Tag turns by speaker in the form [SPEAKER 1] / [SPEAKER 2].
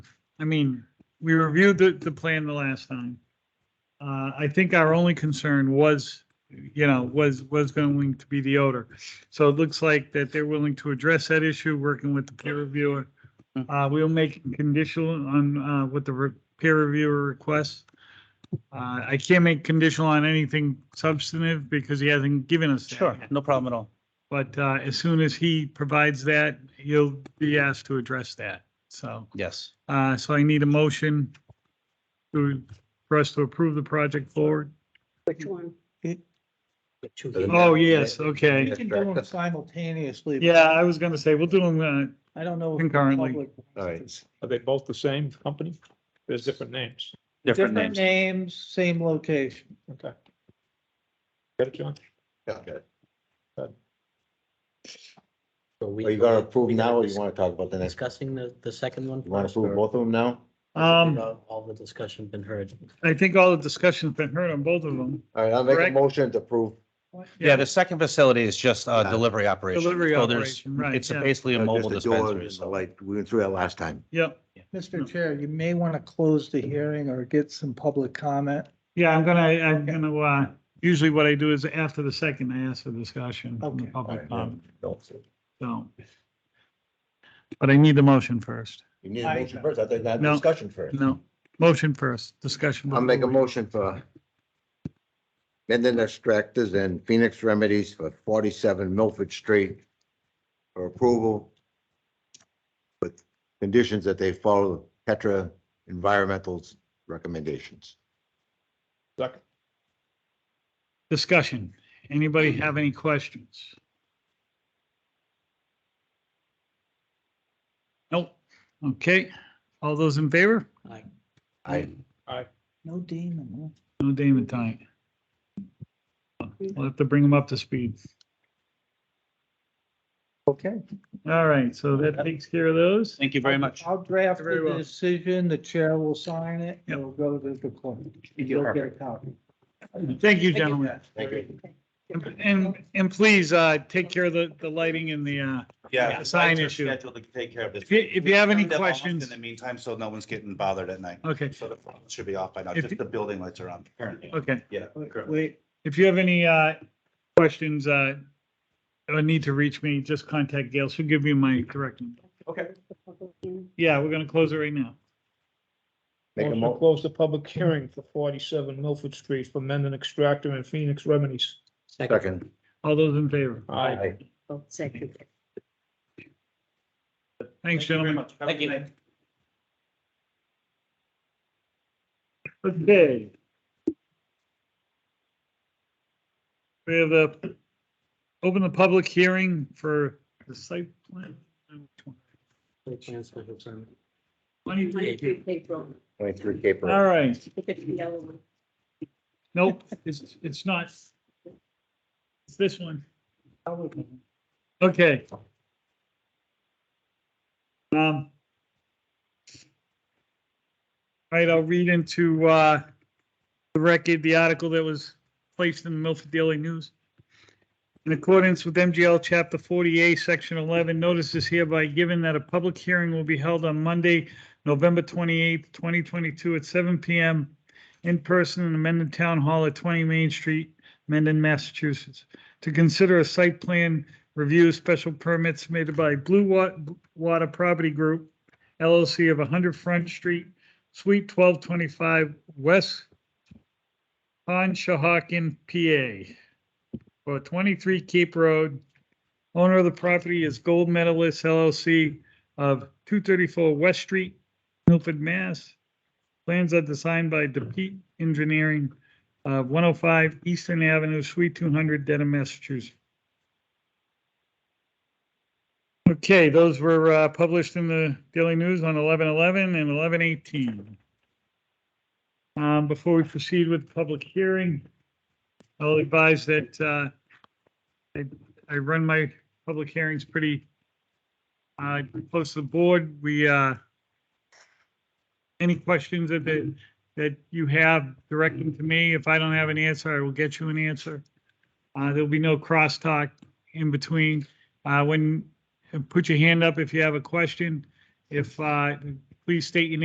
[SPEAKER 1] I mean, we reviewed the, the plan the last time. Uh, I think our only concern was, you know, was, was going to be the odor. So it looks like that they're willing to address that issue, working with the peer reviewer. Uh, we'll make it conditional on, uh, what the re- peer reviewer requests. Uh, I can't make conditional on anything substantive because he hasn't given us that.
[SPEAKER 2] Sure, no problem at all.
[SPEAKER 1] But uh, as soon as he provides that, he'll be asked to address that. So,
[SPEAKER 2] Yes.
[SPEAKER 1] uh, so I need a motion to, for us to approve the project forward.
[SPEAKER 3] Which one?
[SPEAKER 1] Oh, yes, okay.
[SPEAKER 4] You can do them simultaneously. but
[SPEAKER 1] Yeah, I was gonna say, we'll do them,
[SPEAKER 4] I don't know. if the
[SPEAKER 1] Concurrently.
[SPEAKER 4] public wants
[SPEAKER 5] All right.
[SPEAKER 4] this.
[SPEAKER 6] Are they both the same company? There's different names.
[SPEAKER 2] Different
[SPEAKER 4] Different
[SPEAKER 2] names.
[SPEAKER 4] names, same location.
[SPEAKER 6] Okay. Got it, John?
[SPEAKER 7] So we.
[SPEAKER 5] Are you gonna approve
[SPEAKER 7] we
[SPEAKER 5] now or
[SPEAKER 7] dis-
[SPEAKER 5] you wanna talk about the next?
[SPEAKER 7] Discussing the, the second one.
[SPEAKER 5] You wanna
[SPEAKER 7] first,
[SPEAKER 5] approve
[SPEAKER 7] or-
[SPEAKER 5] both of them now?
[SPEAKER 1] uh, um,
[SPEAKER 7] All all the discussion been heard.
[SPEAKER 1] I think all the discussion's been heard on both of them.
[SPEAKER 5] All right, I'll make a
[SPEAKER 1] Correct.
[SPEAKER 5] motion to approve.
[SPEAKER 2] Yeah, the second facility is just uh, delivery operation.
[SPEAKER 1] Ah. Delivery
[SPEAKER 2] So there's-
[SPEAKER 1] operation, right,
[SPEAKER 2] It's
[SPEAKER 1] yeah.
[SPEAKER 2] basically a
[SPEAKER 5] uh,
[SPEAKER 2] mobile
[SPEAKER 5] just the door
[SPEAKER 2] dispensary.
[SPEAKER 5] and the
[SPEAKER 2] so-
[SPEAKER 5] Light, we went through that last time.
[SPEAKER 1] Yep.
[SPEAKER 4] Mr. Chair, you may want to close the hearing or get some public comment.
[SPEAKER 1] Yeah, I'm gonna, I'm gonna, uh, usually what I do is after the second, I ask for discussion from the
[SPEAKER 4] Okay.
[SPEAKER 1] public, comment,
[SPEAKER 5] You
[SPEAKER 1] so. But I need the motion first.
[SPEAKER 5] need a
[SPEAKER 4] I-
[SPEAKER 5] motion first, I think that
[SPEAKER 1] No.
[SPEAKER 5] discussion first.
[SPEAKER 1] No, motion first, discussion.
[SPEAKER 5] I'll make a
[SPEAKER 1] before we-
[SPEAKER 5] motion for Mendon Extractors and Phoenix Remedies for forty-seven Milford Street for approval with conditions that they follow Petra Environmental's recommendations.
[SPEAKER 6] Second.
[SPEAKER 1] Discussion. Anybody have any questions? Nope. Okay. All those in favor?
[SPEAKER 7] Aye.
[SPEAKER 5] I,
[SPEAKER 4] No demon.
[SPEAKER 1] No Damon tonight. We'll have to bring them up to speed.
[SPEAKER 4] Okay.
[SPEAKER 1] All right. So that takes care of those.
[SPEAKER 2] Thank you very much.
[SPEAKER 4] I'll draft
[SPEAKER 1] Very
[SPEAKER 4] the
[SPEAKER 1] well.
[SPEAKER 4] decision, the chair will sign it,
[SPEAKER 1] Yep.
[SPEAKER 4] and it'll go to the clerk.
[SPEAKER 2] you.
[SPEAKER 4] You'll get a copy.
[SPEAKER 1] Thank you, gentlemen.
[SPEAKER 5] Thank you.
[SPEAKER 1] And, and please, uh, take care of the, the lighting and the, uh, Yeah, the sign
[SPEAKER 2] lights are
[SPEAKER 1] issue.
[SPEAKER 2] scheduled to take care of this.
[SPEAKER 1] If you- if you have any
[SPEAKER 2] We've done them almost
[SPEAKER 1] questions-
[SPEAKER 2] In the meantime, so no one's getting bothered at night.
[SPEAKER 1] okay,
[SPEAKER 2] So the phone should be off by now,
[SPEAKER 1] If
[SPEAKER 2] just
[SPEAKER 1] you-
[SPEAKER 2] the building lights are on currently.
[SPEAKER 1] okay.
[SPEAKER 2] Yeah. correct.
[SPEAKER 4] Wait,
[SPEAKER 1] If you have any, uh, questions, uh, or need to reach me, just contact Gail. She'll give you my direct. number.
[SPEAKER 2] Okay.
[SPEAKER 1] Yeah, we're gonna close it right now.
[SPEAKER 5] Make a
[SPEAKER 6] Motion to
[SPEAKER 5] mo,
[SPEAKER 6] close the public hearing for forty-seven Milford Street for Mendon Extractor and Phoenix Remedies.
[SPEAKER 5] second.
[SPEAKER 1] All those in favor?
[SPEAKER 6] Aye.
[SPEAKER 3] Second.
[SPEAKER 1] Thanks, gentlemen.
[SPEAKER 2] Thank you.
[SPEAKER 1] Okay. We have a, open the public hearing for the site plan.
[SPEAKER 7] Any chance for consent?
[SPEAKER 1] Twenty-three.
[SPEAKER 3] April.
[SPEAKER 5] Twenty-three Cape
[SPEAKER 1] All
[SPEAKER 5] Road.
[SPEAKER 1] right,
[SPEAKER 3] Look at the yellow one.
[SPEAKER 1] nope, it's, it's not. It's this one.
[SPEAKER 4] I would-
[SPEAKER 1] Okay. Um. All right, I'll read into, uh, the record, the article that was placed in the Milford Daily News. In accordance with MGL Chapter 48, Section 11, notice is hereby given that a public hearing will be held on Monday, November 28th, 2022 at 7 PM in person in the Mendon Town Hall at 20 Main Street, Mendon, Massachusetts, to consider a site plan review special permits submitted by Blue Wa- Water Property Group LLC of 100 Front Street, Suite 1225, West Conshohocken, PA, for 23 Cape Road. Owner of the property is Gold Medalist LLC of 234 West Street, Milford, Mass. Plans are designed by DePete Engineering, uh, 105 Eastern Avenue, Suite 200, Dedham, Massachusetts. Okay, those were uh, published in the Daily News on 11/11 and 11/18. Um, Before we proceed with public hearing, I'll advise that uh, I I run my public hearings pretty uh, close to the board. We, uh, any questions that- that, that you have, direct them to me. If I don't have an answer, I will get you an answer. Uh, There'll be no crosstalk in between. Uh, When, and put your hand up if you have a question. If, uh, please state your name.